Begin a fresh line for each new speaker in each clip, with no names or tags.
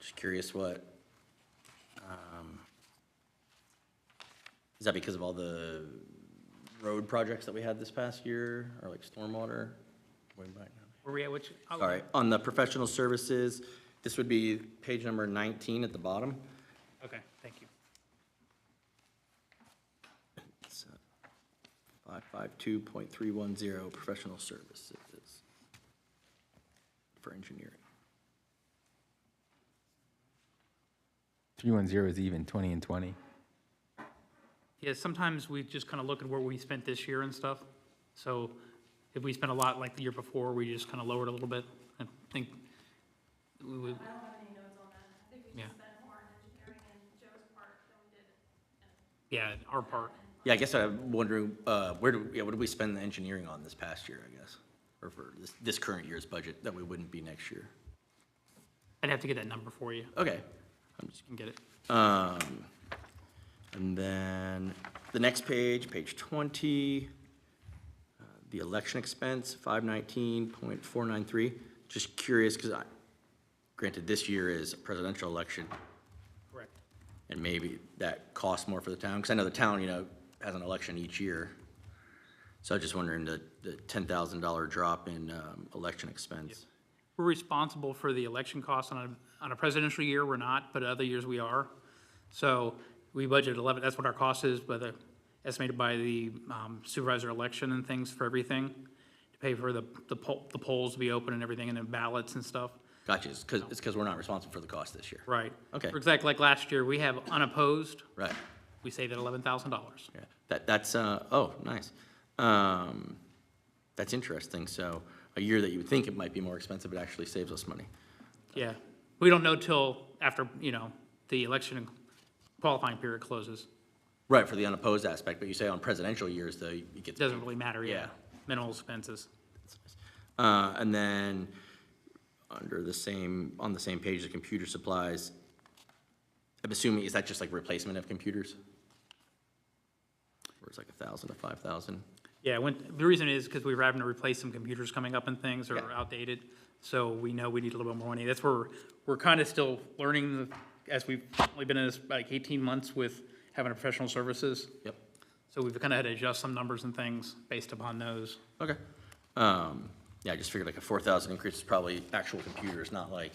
Just curious what, um, is that because of all the road projects that we had this past year, or like stormwater? Way back now.
Where we at, which? oh,
Sorry, on the professional services, this would be page number nineteen at the bottom.
Okay, thank you.
It's uh, five five two point three one zero, professional services for engineering.
310 is even, 20 and 20.
Yeah, sometimes we just kind of look at where we spent this year and stuff. So if we spent a lot like the year before, we just kind of lowered a little bit. I think we would,
I don't have any notes on that. I think we
Yeah.
just spent more on engineering and Joe's part than we did.
yeah, our part.
Yeah, I guess I'm wondering, uh, where do, yeah, what did we spend the engineering on this past year, I guess? Or for this, this current year's budget that we wouldn't be next year?
I'd have to get that number for you.
Okay.
You can get it.
Um, and then the next page, page twenty, uh, the election expense, five nineteen point four nine three. Just curious, because I, granted, this year is a presidential election,
Correct.
and maybe that costs more for the town, because I know the town, you know, has an election each year. So I was just wondering the, the ten thousand dollar drop in, um, election expense.
We're responsible for the election costs on a, on a presidential year, we're not, but other years we are. So we budget 11, that's what our cost is, but the- estimated by the um, supervisor election and things for everything, to pay for the, the poll, the polls to be open and everything, and then ballots and stuff.
Gotcha, it's because, it's because we're not responsible for the cost this year.
Right.
Okay.
For example, like last year, we have unopposed,
Right.
we saved at $11,000.
Yeah, that, that's, uh, oh, nice. Um, that's interesting. So a year that you would think it might be more expensive, it actually saves us money.
Yeah. We don't know till after, you know, the election qualifying period closes.
Right, for the unopposed aspect, but you say on presidential years, though, it gets.
Doesn't really matter, yeah.
Yeah.
Minimal expenses.
Uh, and then, under the same, on the same page, the computer supplies, I'm assuming, is that just like replacement of computers? Or it's like a thousand to five thousand?
Yeah, when, the reason is because we were having to replace some computers coming up and things that are
Yeah.
outdated. So we know we need a little bit more money. That's where we're- we're kind of still learning the- as we've only been in this like eighteen months with having a professional services.
Yep,
So we've kind of had to adjust some numbers and things based upon those.
okay. Um, yeah, I just figured like a four thousand increase is probably actual computers, not like,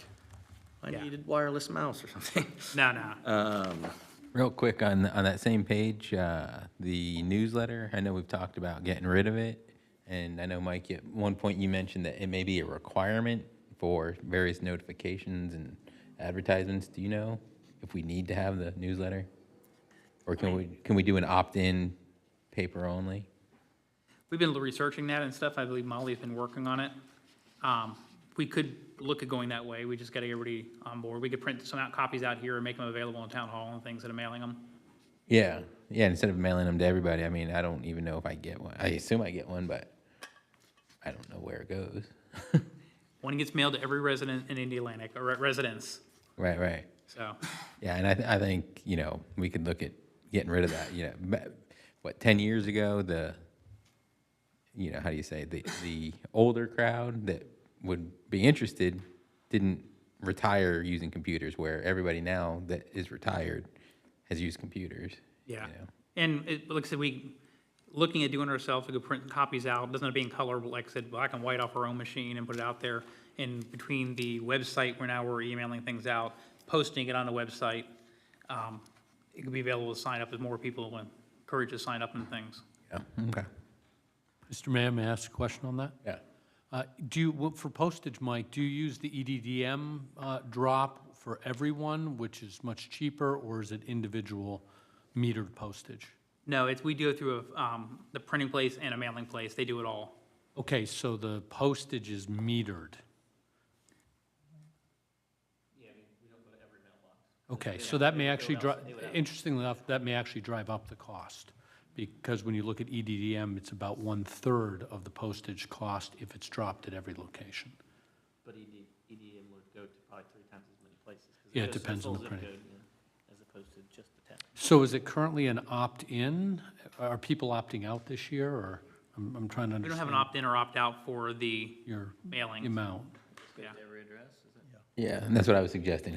I
Yeah.
needed wireless mouse or something.
No, no.
Real quick on on that same page, uh, the newsletter. I know we've talked about getting rid of it, and I know Mike. At one point, you mentioned that it may be a requirement for various notifications and advertisements. Do you know if we need to have the newsletter, or can we can we do an opt-in paper only?
We've been researching that and stuff. I believe Molly's been working on it. Um, We could look at going that way. We just got to get everybody on board. We could print some out copies out here and make them available in town hall and things and mailing them.
Yeah, yeah. Instead of mailing them to everybody, I mean, I don't even know if I get one. I assume I get one, but I don't know where it goes.
One gets mailed to every resident in Indian Atlantic, or re- residence,
Right, right.
so,
Yeah, and I, th- I think you know we could look at getting rid of that. You know, ba- what ten years ago the, you know, how do you say the the older crowd that would be interested didn't retire using computers, where everybody now that is retired has used computers.
yeah.
You know?
And it, like I said, we, looking at doing it ourselves, we could print copies out, doesn't have to be in color, but like I said, black and white off our own machine and put it out there. And between the website, where now we're emailing things out, posting it on the website, um, it could be available to sign up as more people will encourage to sign up and things.
Yeah. Mm-hmm. Okay.
Mr. Mayor, may I ask a question on that?
Yeah.
Uh, Do you, well, for postage, Mike, do you use the E EDDM uh, drop for everyone, which is much cheaper, or is it individual metered postage?
No, it's, we do it through, a, um, the printing place and a mailing place, they do it all.
Okay, so the postage is metered. Okay, so that may actually drive, interestingly enough, that may actually drive up the cost, because when you look at E EDDM, it's about one-third of the postage cost if it's dropped at every location.
But ED, EDM would go to probably three times as many places. 'cause
Yeah, it
goes to the
depends on
full
the
zip
printing.
code, yeah, As opposed to just the town.
So is it currently an opt-in? Are people opting out this year, or, I'm, I'm trying to
We don't have
understand
an opt-in or opt-out for the
your
mailing.
amount?
Yeah.
Every address, is it?
Yeah, and that's what I was suggesting.